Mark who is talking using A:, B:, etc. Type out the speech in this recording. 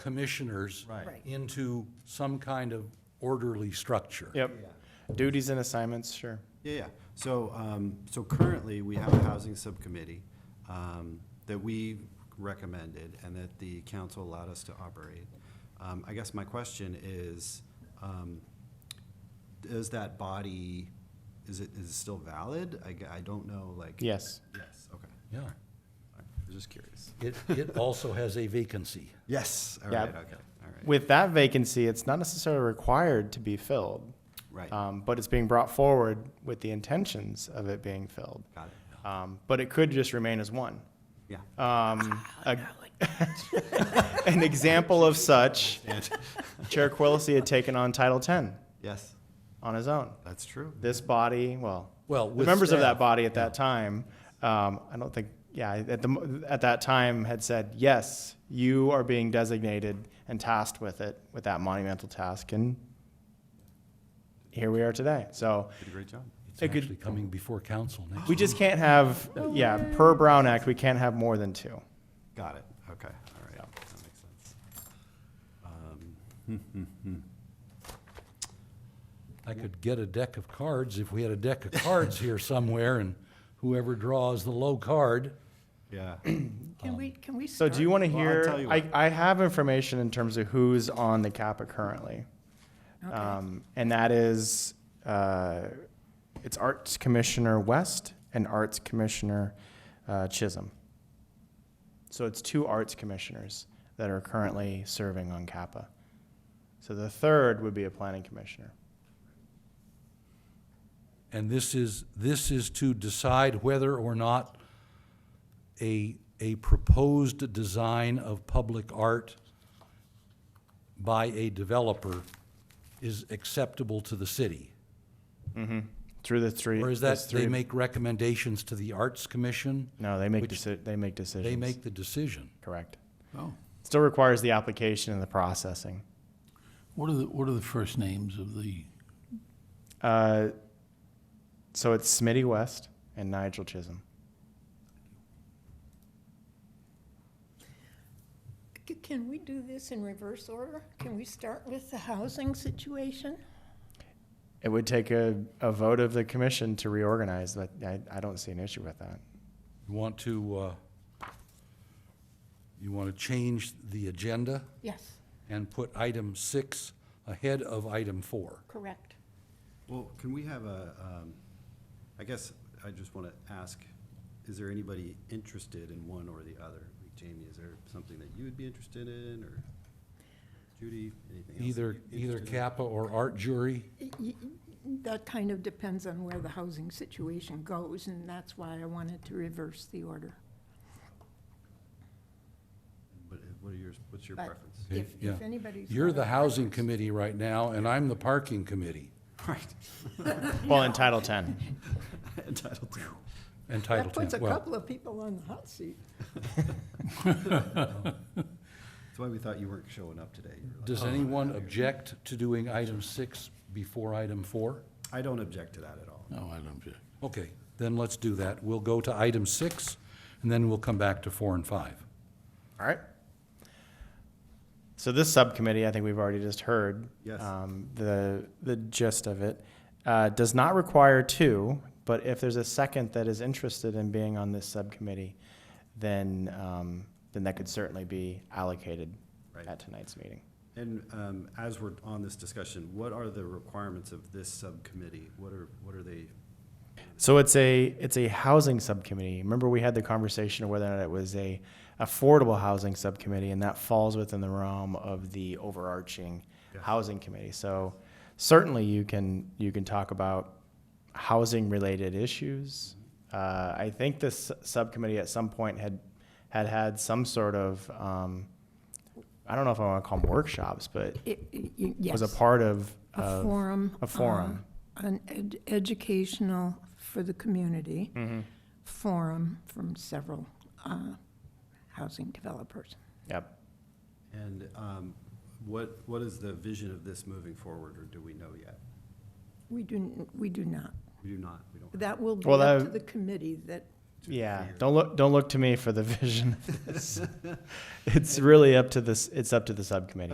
A: commissioners
B: Right.
A: into some kind of orderly structure.
C: Yep.
B: Yeah.
C: Duties and assignments, sure.
B: Yeah, yeah. So, um, so currently, we have a housing subcommittee, um, that we recommended and that the council allowed us to operate. Um, I guess my question is, um, is that body, is it, is it still valid? I, g- I don't know, like.
C: Yes.
B: Yes, okay.
A: Yeah.
B: I was just curious.
A: It, it also has a vacancy.
B: Yes, all
C: Yeah.
B: right, okay, all right.
C: With that vacancy, it's not necessarily required to be filled.
B: Right.
C: Um, but it's being brought forward with the intentions of it being filled.
B: Got it.
C: Um, but it could just remain as one.
B: Yeah.
C: Um, a- an example of such, Chair Quillisi had taken on Title X
B: Yes,
C: on his own.
B: that's true.
C: This body, well,
A: Well,
C: the
A: with
C: members of
A: staff,
C: that body at that time, um, I don't think, yeah, at the mo- at that time had said, yes, you are being designated and tasked with it, with that monumental task, and here we are today. So.
B: Did a great job.
A: It's
C: a good-
A: actually coming before council next.
C: We just can't have, yeah, per Brown Act, we can't have more than two.
B: Got it, okay, all right, that makes sense. Um,
A: I could get a deck of cards if we had a deck of cards here somewhere and whoever draws the low card.
B: Yeah,
D: Can we, can we
C: So
D: start?
C: do you want to
B: Well, I'll
C: hear,
B: tell you
C: I,
B: what.
C: I have information in terms of who's on the CAPA currently.
D: Okay.
C: Um, and that is, uh, it's Arts Commissioner West and Arts Commissioner, uh, Chisholm. So it's two arts commissioners that are currently serving on CAPA. So the third would be a planning commissioner.
A: And this is, this is to decide whether or not a, a proposed design of public art by a developer is acceptable to the city?
C: Through the three.
A: Or is
C: those
A: that, they
C: three-
A: make recommendations to the Arts Commission?
C: No, they make
A: which-
C: deci- they make decisions.
A: They make the decision.
C: Correct.
E: Oh,
C: Still requires the application and the processing.
E: what are the, what are the first names of the,
C: Uh, so it's Smitty West and Nigel Chisholm.
D: C- Can we do this in reverse order? Can we start with the housing situation?
C: It would take a, a vote of the commission to reorganize, but I, I don't see an issue with that.
A: You want to, uh, you want to change the agenda
D: Yes,
A: and put item six ahead of item four?
D: correct.
B: well, can we have a, um, I guess I just want to ask, is there anybody interested in one or the other? Like Jamie, is there something that you would be interested in, or Judy, anything else?
A: Either,
B: that you're
A: either
B: interested in?
A: Kappa or art jury?
D: Y- y- That kind of depends on where the housing situation goes, and that's why I wanted to reverse the order.
B: What uh, what are yours, what's your
D: But
B: preference?
D: If,
A: Yeah.
D: if anybody's.
A: You're
D: got
A: the
D: a
A: housing
D: preference-
A: committee right now, and I'm the parking committee
B: Right,
C: Well, in Title 10.
B: entitled to.
A: and Title
D: That puts a
A: Ten. Well,
D: couple of people on the hot seat.
B: That's why we thought you weren't showing up today. You were like,
A: does
B: "Oh,
A: anyone
B: I'm here."
A: object to doing item six before item four?
B: I don't object to that at all.
E: no, oh, I don't object.
A: Okay, then let's do that. We'll go to item six, and then we'll come back to four and five.
C: All right. So this subcommittee, I think we've already just heard.
B: Yes.
C: Um, the, the gist of it, uh, does not require two, but if there's a second that is interested in being on this subcommittee, then, um, then that could certainly be allocated
B: Right.
C: at tonight's meeting.
B: And um, as we're on this discussion, what are the requirements of this subcommittee? What are, what are they?
C: So it's a it's a housing subcommittee. Remember we had the conversation of whether or not it was a affordable housing subcommittee, and that falls within the realm of the overarching
B: Yes.
C: housing committee. So certainly you can you can talk about housing related issues. Uh, I think this subcommittee at some point had had had some sort of um, I don't know if I want to call them workshops, but
D: It- it- y- Yes.
C: was a part of,
D: a
C: of
D: forum.
C: a forum.
D: uh, An ed- educational for the community forum from several uh, housing developers.
C: yep.
B: And um, what, what is the vision of this moving forward, or do we know yet?
D: We do, n- we do not.
B: We do not, we don't.
D: That will be
C: Well,
D: up
C: that-
D: to the committee that
C: Yeah, don't look don't look to me for the vision. of this. it's really up to this. It's up to the subcommittee.